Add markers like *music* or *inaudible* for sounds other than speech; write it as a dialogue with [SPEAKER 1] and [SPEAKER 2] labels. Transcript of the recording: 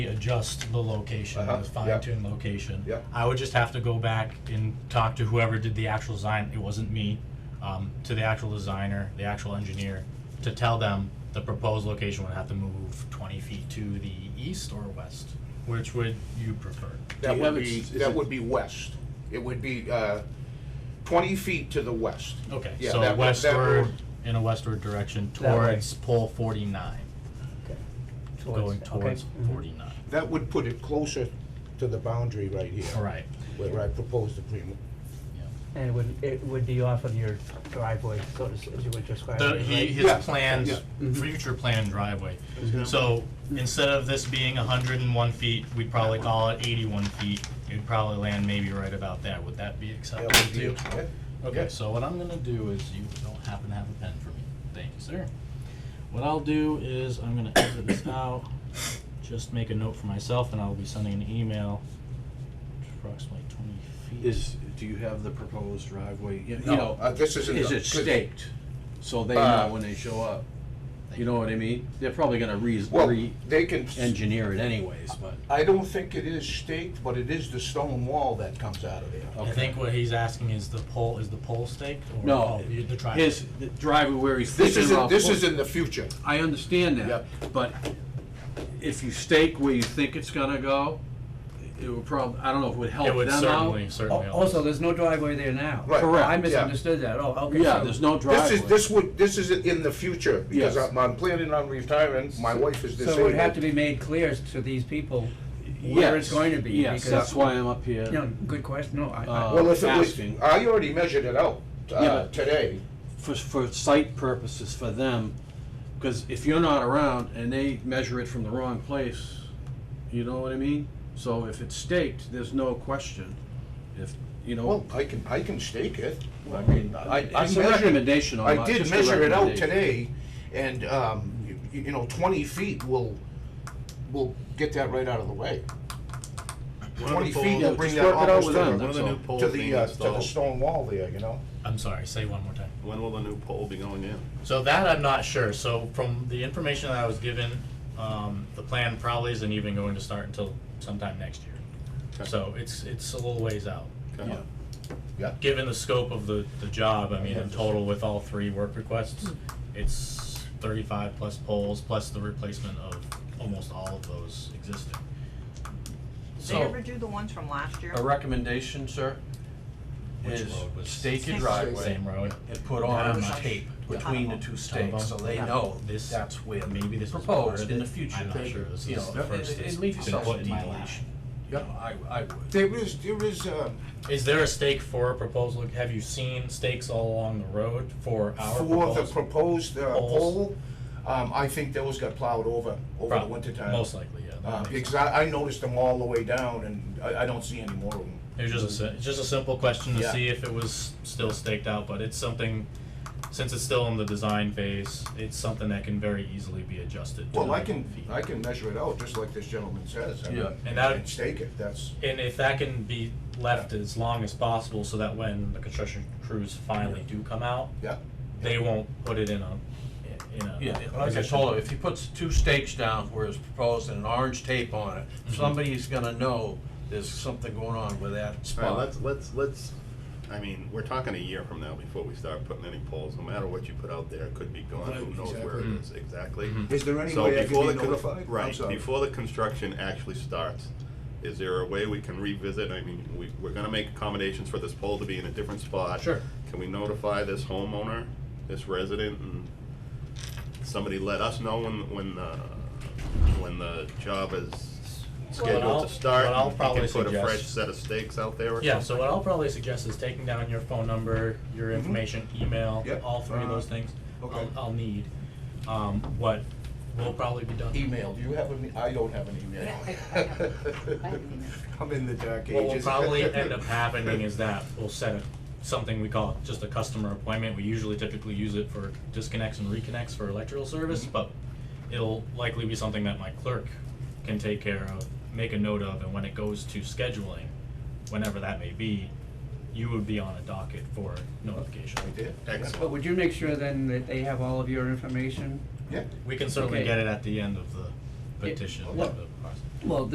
[SPEAKER 1] adjust the location,
[SPEAKER 2] Uh-huh,
[SPEAKER 1] the fine
[SPEAKER 2] yep.
[SPEAKER 1] tune location.
[SPEAKER 2] Yep.
[SPEAKER 1] I would just have to go back and talk to whoever did the actual design, it wasn't me, um, to the actual designer, the actual engineer, to tell them the proposed location would have to move twenty feet to the east or west, which would you prefer?
[SPEAKER 2] That
[SPEAKER 3] you
[SPEAKER 2] would
[SPEAKER 3] have
[SPEAKER 2] be,
[SPEAKER 3] ex- is
[SPEAKER 2] that
[SPEAKER 3] it-
[SPEAKER 2] would be west. It would be, uh, twenty feet to the west.
[SPEAKER 1] Okay,
[SPEAKER 2] Yeah, that
[SPEAKER 1] so
[SPEAKER 2] would- that
[SPEAKER 1] westward,
[SPEAKER 2] would-
[SPEAKER 1] in a westward direction
[SPEAKER 4] That way.
[SPEAKER 1] towards pole forty-nine, going towards
[SPEAKER 4] Okay. Mhm.
[SPEAKER 1] forty-nine,
[SPEAKER 2] That would put it closer to the boundary right
[SPEAKER 1] all
[SPEAKER 2] here,
[SPEAKER 1] right,
[SPEAKER 2] where I proposed the pre
[SPEAKER 1] yeah.
[SPEAKER 4] And it would, it would be off of your driveway, so to, s- as you would describe it,
[SPEAKER 1] The,
[SPEAKER 4] right?
[SPEAKER 1] he, his
[SPEAKER 2] Yeah, yeah. Mm-hmm.
[SPEAKER 1] planned, future planned driveway. So instead of this being hundred and one feet, we'd probably call it eighty-one feet. You'd probably land maybe right about that. Would that be acceptable
[SPEAKER 2] That would
[SPEAKER 1] to
[SPEAKER 2] be-
[SPEAKER 1] you?
[SPEAKER 2] yeah,
[SPEAKER 1] Okay,
[SPEAKER 2] yeah.
[SPEAKER 1] so what I'm gonna do is, you don't happen to have a pen for me. Thank you, sir. What I'll do is, I'm gonna exit this out, just make a note for myself, and I'll be sending an email approximately twenty feet.
[SPEAKER 3] Is, do you have the proposed driveway, you you
[SPEAKER 2] No,
[SPEAKER 3] know,
[SPEAKER 2] uh, this isn't
[SPEAKER 3] is
[SPEAKER 2] a-
[SPEAKER 3] it staked? So they
[SPEAKER 2] Uh,
[SPEAKER 3] know when they show up, you know what I mean? They're probably gonna re,
[SPEAKER 2] Well, they can,
[SPEAKER 3] re-engineer it anyways, but,
[SPEAKER 2] I don't think it is staked, but it is the stone wall that comes out of there.
[SPEAKER 1] I
[SPEAKER 3] okay.
[SPEAKER 1] think what he's asking is the pole, is the pole staked or?
[SPEAKER 3] No,
[SPEAKER 1] oh, you- the driveway?
[SPEAKER 3] his the driveway where he's
[SPEAKER 2] This
[SPEAKER 3] thinking
[SPEAKER 2] is, in-
[SPEAKER 3] about.
[SPEAKER 2] this
[SPEAKER 3] putting-
[SPEAKER 2] is in the future.
[SPEAKER 3] I understand that,
[SPEAKER 2] Yep.
[SPEAKER 3] but if you stake where you think it's gonna go, it would probably, I don't know if it would help
[SPEAKER 1] It
[SPEAKER 3] them
[SPEAKER 1] would
[SPEAKER 3] out.
[SPEAKER 1] certainly, certainly. help.
[SPEAKER 4] Oh, Also, there's no driveway there now.
[SPEAKER 2] Right.
[SPEAKER 3] Correct.
[SPEAKER 4] I
[SPEAKER 3] yeah.
[SPEAKER 4] misunderstood that, oh, okay.
[SPEAKER 3] Yeah,
[SPEAKER 4] so-
[SPEAKER 3] there's no driveway.
[SPEAKER 2] This is, this would, this is in the future, because
[SPEAKER 3] Yes.
[SPEAKER 2] I'm, I'm planning on retiring, my wife is disabled.
[SPEAKER 4] So it would have to be made clear to these people where it's
[SPEAKER 3] Yes,
[SPEAKER 4] going to be.
[SPEAKER 3] Yes,
[SPEAKER 4] because-
[SPEAKER 3] that's why I'm up here.
[SPEAKER 4] You know, good question, no, I, I,
[SPEAKER 3] Uh,
[SPEAKER 2] Well, if it was,
[SPEAKER 3] asking.
[SPEAKER 2] I already measured it out,
[SPEAKER 3] Yeah,
[SPEAKER 2] uh,
[SPEAKER 3] but-
[SPEAKER 2] today.
[SPEAKER 3] for, for site purposes for them, because if you're not around and they measure it from the wrong place, you know what I mean? So if it's staked, there's no question. If, you
[SPEAKER 2] Well,
[SPEAKER 3] know,
[SPEAKER 2] I can, I can stake it.
[SPEAKER 3] I mean,
[SPEAKER 2] I- I
[SPEAKER 3] it's a
[SPEAKER 2] measured-
[SPEAKER 3] recommendation on
[SPEAKER 2] I
[SPEAKER 3] my-
[SPEAKER 2] did
[SPEAKER 3] just a
[SPEAKER 2] measure it out
[SPEAKER 3] recommendation.
[SPEAKER 2] today, and, um, y- y- you know, twenty feet will, will get that right out of the way.
[SPEAKER 5] One of the
[SPEAKER 2] Twenty
[SPEAKER 5] poles-
[SPEAKER 2] feet
[SPEAKER 3] Yeah,
[SPEAKER 2] will bring
[SPEAKER 3] just
[SPEAKER 2] that
[SPEAKER 3] work it out
[SPEAKER 2] almost
[SPEAKER 3] with
[SPEAKER 2] to
[SPEAKER 3] them,
[SPEAKER 5] One
[SPEAKER 2] the,
[SPEAKER 5] of the
[SPEAKER 3] So,
[SPEAKER 5] new poles
[SPEAKER 2] to
[SPEAKER 5] being
[SPEAKER 2] the, uh, to the
[SPEAKER 5] installed,
[SPEAKER 2] stone wall there, you know?
[SPEAKER 1] I'm sorry, say one more time.
[SPEAKER 5] when will the new pole be going in?
[SPEAKER 1] So that I'm not sure. So from the information that I was given, um, the plan probably isn't even going to start until sometime next year.
[SPEAKER 5] Okay.
[SPEAKER 1] So it's, it's a little ways out.
[SPEAKER 5] Okay.
[SPEAKER 3] Yeah.
[SPEAKER 2] Yeah.
[SPEAKER 1] Given the scope of the, the job, I mean, in total with all three work requests, it's thirty-five plus poles, plus the replacement of almost all of those existing.
[SPEAKER 6] Did they
[SPEAKER 3] So,
[SPEAKER 6] ever do the ones from last year?
[SPEAKER 3] a recommendation, sir,
[SPEAKER 1] Which
[SPEAKER 3] is
[SPEAKER 1] road was-
[SPEAKER 3] stake your
[SPEAKER 6] Same-
[SPEAKER 3] driveway
[SPEAKER 1] Same road.
[SPEAKER 3] and put
[SPEAKER 1] Not
[SPEAKER 3] on
[SPEAKER 1] much.
[SPEAKER 3] tape between the two stakes, so they
[SPEAKER 1] Yeah.
[SPEAKER 3] know
[SPEAKER 1] This-
[SPEAKER 3] that's where
[SPEAKER 1] maybe this is part
[SPEAKER 3] proposed
[SPEAKER 1] of
[SPEAKER 3] in the
[SPEAKER 1] it.
[SPEAKER 3] future.
[SPEAKER 1] I'm not sure this
[SPEAKER 3] You
[SPEAKER 1] is
[SPEAKER 3] know,
[SPEAKER 1] the
[SPEAKER 3] and-
[SPEAKER 1] first
[SPEAKER 3] and-
[SPEAKER 1] that's
[SPEAKER 3] And leave
[SPEAKER 1] been
[SPEAKER 3] yourself
[SPEAKER 1] put
[SPEAKER 3] a
[SPEAKER 1] in my lap.
[SPEAKER 3] deviation. You know, I, I would.
[SPEAKER 2] There is, there is, um,
[SPEAKER 1] Is there a stake for a proposal? Have you seen stakes all along the road for our
[SPEAKER 2] for the
[SPEAKER 1] proposal?
[SPEAKER 2] proposed, uh,
[SPEAKER 1] Poles.
[SPEAKER 2] pole, um, I think those got plowed over, over the
[SPEAKER 1] Prob-
[SPEAKER 2] winter time.
[SPEAKER 1] Most likely, yeah. that
[SPEAKER 2] Uh,
[SPEAKER 1] makes
[SPEAKER 2] because
[SPEAKER 1] sense.
[SPEAKER 2] I, I noticed them all the way down, and I, I don't see any more of them.
[SPEAKER 1] It was just a, si- it's just a simple question to
[SPEAKER 2] Yeah.
[SPEAKER 1] see if it was still staked out, but it's something, since it's still in the design phase, it's something that can very easily be adjusted to
[SPEAKER 2] Well, I
[SPEAKER 1] the
[SPEAKER 2] can,
[SPEAKER 1] feet.
[SPEAKER 2] I can measure it out, just like this gentleman says. I mean,
[SPEAKER 3] Yeah.
[SPEAKER 1] And that-
[SPEAKER 2] And stake it, that's,
[SPEAKER 1] And if that can be left as long as possible so that when the construction crews finally do come out,
[SPEAKER 2] yeah.
[SPEAKER 1] they won't put it in a, in a.
[SPEAKER 3] Yeah, like I
[SPEAKER 1] position-
[SPEAKER 3] told him, if he puts two stakes down where it's proposed and an orange tape on it, somebody's gonna know there's something going on with that
[SPEAKER 5] All right,
[SPEAKER 3] spot.
[SPEAKER 5] let's, let's, let's, I mean, we're talking a year from now before we start putting any poles, no matter what you put out there, it could be gone, who
[SPEAKER 2] Right, Mm-hmm.
[SPEAKER 5] knows where it is exactly.
[SPEAKER 1] Mhm.
[SPEAKER 2] Is there any
[SPEAKER 5] So
[SPEAKER 2] way I
[SPEAKER 5] before
[SPEAKER 2] can be
[SPEAKER 5] the con-
[SPEAKER 2] notified? I'm
[SPEAKER 5] Right,
[SPEAKER 2] sorry.
[SPEAKER 5] before the construction actually starts, is there a way we can revisit, I mean, we, we're gonna make accommodations for this pole to be in a different spot.
[SPEAKER 3] Sure.
[SPEAKER 5] Can we notify this homeowner, this resident, and somebody let us know when, when, uh, when the job is
[SPEAKER 1] Well, I'll-
[SPEAKER 5] scheduled to start?
[SPEAKER 1] what I'll
[SPEAKER 5] and
[SPEAKER 1] probably
[SPEAKER 5] He can put a fresh
[SPEAKER 1] suggest-
[SPEAKER 5] set of stakes out there or
[SPEAKER 1] Yeah, so what I'll probably suggest is taking down your phone number, your information, email,
[SPEAKER 2] Mm-hmm. Yep. Uh,
[SPEAKER 1] all three of those things.
[SPEAKER 2] okay.
[SPEAKER 1] I'll, I'll need, um, what will probably be done.
[SPEAKER 2] Email, do you have an, e, I don't have an *laughs* email. I'm in the dark ages.
[SPEAKER 1] What will probably
[SPEAKER 4] *laughs*
[SPEAKER 1] end
[SPEAKER 2] *laughs*
[SPEAKER 1] up happening is that we'll set a, something we call just a customer appointment. We usually typically use it for disconnects and reconnects for electrical service,
[SPEAKER 4] Mm-hmm.
[SPEAKER 1] but it'll likely be something that my clerk can take care of, make a note of, and when it goes to scheduling, whenever that may be, you would be on a docket for notification.
[SPEAKER 2] We did?
[SPEAKER 4] but
[SPEAKER 5] Excellent.
[SPEAKER 4] would you make sure then that they have all of your information?
[SPEAKER 2] Yeah,
[SPEAKER 1] We can certainly
[SPEAKER 4] Okay.
[SPEAKER 1] get it at the end of the
[SPEAKER 4] Yeah,
[SPEAKER 1] petition.
[SPEAKER 4] what-
[SPEAKER 1] the process.
[SPEAKER 4] Well,